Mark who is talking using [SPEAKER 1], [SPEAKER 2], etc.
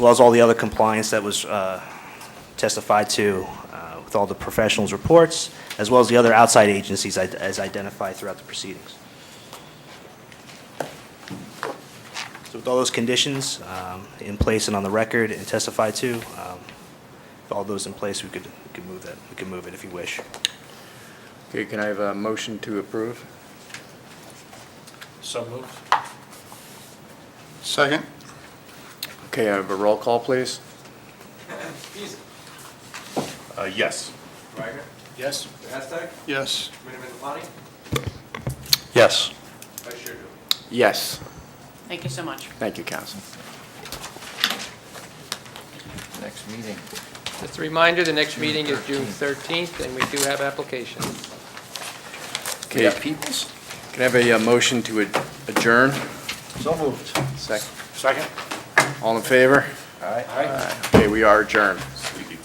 [SPEAKER 1] well as all the other compliance that was uh, testified to uh, with all the professionals' reports, as well as the other outside agencies i- as identified throughout the proceedings. So with all those conditions um, in place and on the record and testified to, um, with all those in place, we could, we could move that, we could move it if you wish.
[SPEAKER 2] Okay, can I have a motion to approve?
[SPEAKER 3] So moved.
[SPEAKER 4] Second?
[SPEAKER 2] Okay, I have a roll call, please.
[SPEAKER 3] Uh, yes.
[SPEAKER 5] Reiger,
[SPEAKER 3] Yes.
[SPEAKER 5] Hashtag,
[SPEAKER 4] Yes.
[SPEAKER 5] Committeeman Plani,
[SPEAKER 3] Yes.
[SPEAKER 5] Vice Chair Dubey.
[SPEAKER 2] Yes,
[SPEAKER 6] Thank you so much.
[SPEAKER 2] thank you, Council.
[SPEAKER 7] Next meeting.
[SPEAKER 8] Just a reminder, the next meeting is June 13th, and we do have applications.
[SPEAKER 7] We
[SPEAKER 2] Okay,
[SPEAKER 7] got Peoples?
[SPEAKER 2] can I have a uh, motion to ad- adjourn?
[SPEAKER 7] So moved.
[SPEAKER 2] Second.
[SPEAKER 3] Second?
[SPEAKER 2] All in favor?
[SPEAKER 7] All right.
[SPEAKER 2] Okay, we are adjourned.